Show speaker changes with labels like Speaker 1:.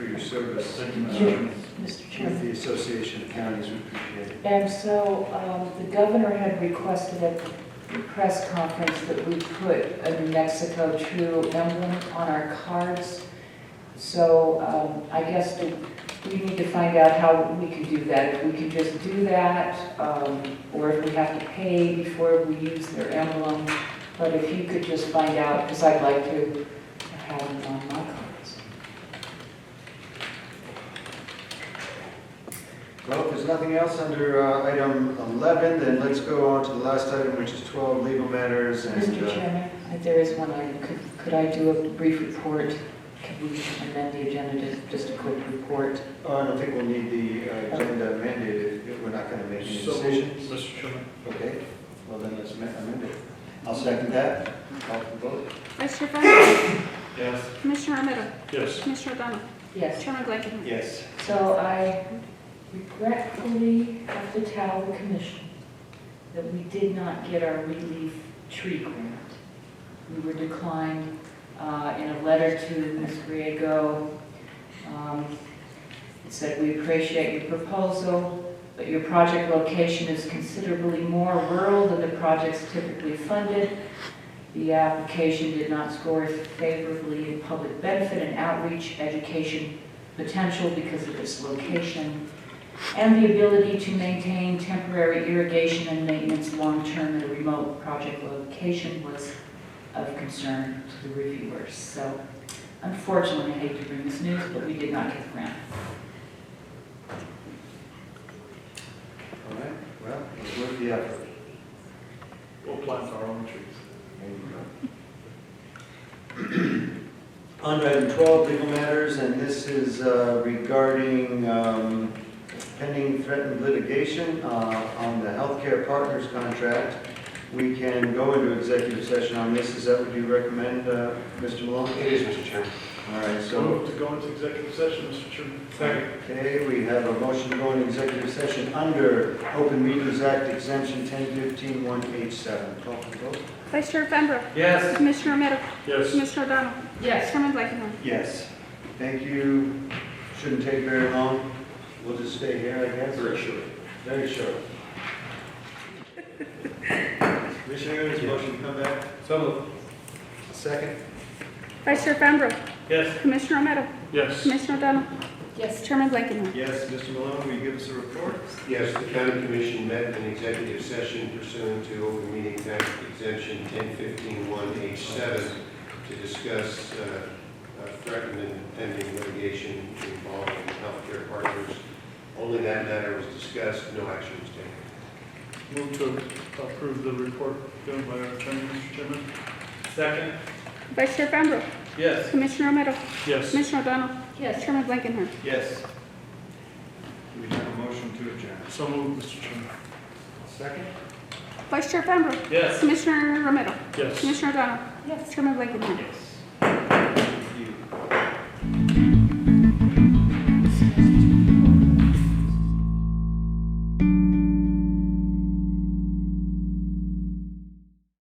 Speaker 1: service uh,
Speaker 2: Jim.
Speaker 1: with
Speaker 2: Mr. Chairman.
Speaker 1: the Association of Counties, we appreciate it.
Speaker 2: And so um, the governor had requested at the press conference that we put a New Mexico True emblem on our cards. So um, I guess we- we need to find out how we can do that, if we can just do that, um, or if we have to pay before we use their emblem. But if you could just find out, because I'd like to have them on my cards.
Speaker 1: Well, if there's nothing else under uh, item 11, then let's go on to the last item, which is 12, legal matters and...
Speaker 2: Mr.
Speaker 1: uh,
Speaker 2: Chairman, if there is one item. Could could I do a brief report? Can we amend the agenda to just a quick report?
Speaker 1: oh, I don't think we'll need the uh, agenda mandated, if we're not going to make any
Speaker 3: So moved,
Speaker 1: decisions.
Speaker 3: Mr. Chairman.
Speaker 1: Okay, well then let's ma- amend it. I'll second that. Call for vote.
Speaker 4: Vice Chair Fenton.
Speaker 3: Yes.
Speaker 4: Commissioner Romero.
Speaker 3: Yes.
Speaker 4: Commissioner O'Donnell.
Speaker 2: Yes.
Speaker 4: Chairman Blankenham.
Speaker 1: Yes.
Speaker 2: So I regretfully have to tell the commission that we did not get our relief tree grant. We were declined uh, in a letter to Ms. Griego. Um, It said, "We appreciate your proposal, but your project location is considerably more rural than the projects typically funded. The application did not score favorably in public benefit and outreach, education, potential because of its location, and the ability to maintain temporary irrigation and maintenance long-term in a remote project location was of concern to the reviewers. So unfortunately, I hate to bring this news, but we did not get the grant.
Speaker 1: All right, well, it's worth the effort.
Speaker 3: We'll plant our own trees.
Speaker 1: There you go. On to item 12, legal matters, and this is uh, regarding um, pending threatened litigation uh, on the healthcare partners contract. We can go into executive session on this, is that what you recommend, uh, Mr. Malone? It is, Mr. Chairman. All right,
Speaker 3: So
Speaker 1: so,
Speaker 3: moved to go into executive session, Mr. Chairman.
Speaker 1: okay, we have a motion to go into executive session under Open Meetings Act exemption 10151H7. Call for vote.
Speaker 4: Vice Chair Fenbrook.
Speaker 3: Yes.
Speaker 4: Commissioner Romero.
Speaker 3: Yes.
Speaker 4: Commissioner O'Donnell.
Speaker 2: Yes.
Speaker 4: Chairman Blankenham.
Speaker 1: Yes. Thank you. Shouldn't take very long. We'll just stay here, I guess.
Speaker 3: Very short.
Speaker 1: Very short. Commissioner Ernst, motion to come back? So Second?
Speaker 4: Vice Chair Fenbrook.
Speaker 3: Yes.
Speaker 4: Commissioner Romero.
Speaker 3: Yes.
Speaker 4: Commissioner O'Donnell.
Speaker 2: Yes.
Speaker 4: Chairman Blankenham.
Speaker 1: Yes, Mr. Malone, will you give us a report?
Speaker 5: Yes, the county commission met in executive session pursuant to open meeting act exemption 1015-1H7 to discuss uh, uh, threatened and pending litigation involving healthcare partners. Only that matter was discussed, no action was taken.
Speaker 3: Move to approve the report given by our attorney, Mr. Chairman. Second.
Speaker 4: Vice Chair Fambro.
Speaker 3: Yes.
Speaker 4: Commissioner Romero.
Speaker 3: Yes.
Speaker 4: Commissioner O'Donnell.
Speaker 2: Yes.
Speaker 4: Chairman Blankenham.
Speaker 1: Yes. We have a motion to adjourn.
Speaker 3: So moved, Mr. Chairman.
Speaker 1: Second?
Speaker 4: Vice Chair Fambro.
Speaker 3: Yes.
Speaker 4: Commissioner Romero.
Speaker 3: Yes.
Speaker 4: Commissioner O'Donnell. Chairman Blankenham.
Speaker 1: Thank you.